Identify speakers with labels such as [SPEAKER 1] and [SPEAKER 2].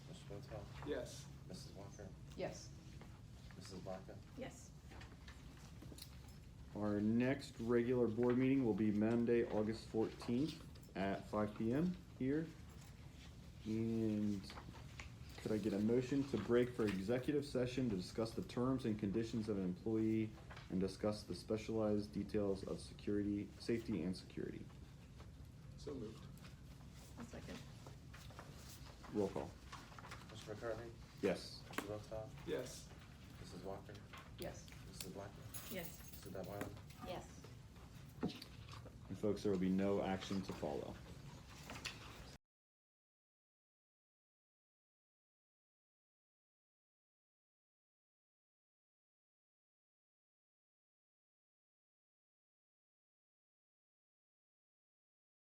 [SPEAKER 1] Yes.
[SPEAKER 2] Mrs. Walker?
[SPEAKER 3] Yes.
[SPEAKER 2] Mrs. Blanca?
[SPEAKER 3] Yes.
[SPEAKER 4] Our next regular board meeting will be Monday, August fourteenth at five P M here. And could I get a motion to break for executive session to discuss the terms and conditions of an employee and discuss the specialized details of security, safety and security?
[SPEAKER 1] So moved.
[SPEAKER 3] I'll second.
[SPEAKER 4] Roll call.
[SPEAKER 2] Mr. McCarthy?
[SPEAKER 4] Yes.
[SPEAKER 2] Mr. Rosenthal?
[SPEAKER 1] Yes.
[SPEAKER 2] Mrs. Walker?
[SPEAKER 3] Yes.
[SPEAKER 2] Mrs. Blanca?
[SPEAKER 3] Yes.
[SPEAKER 2] Mr. Detwiler?
[SPEAKER 3] Yes.
[SPEAKER 4] And folks, there will be no action to follow.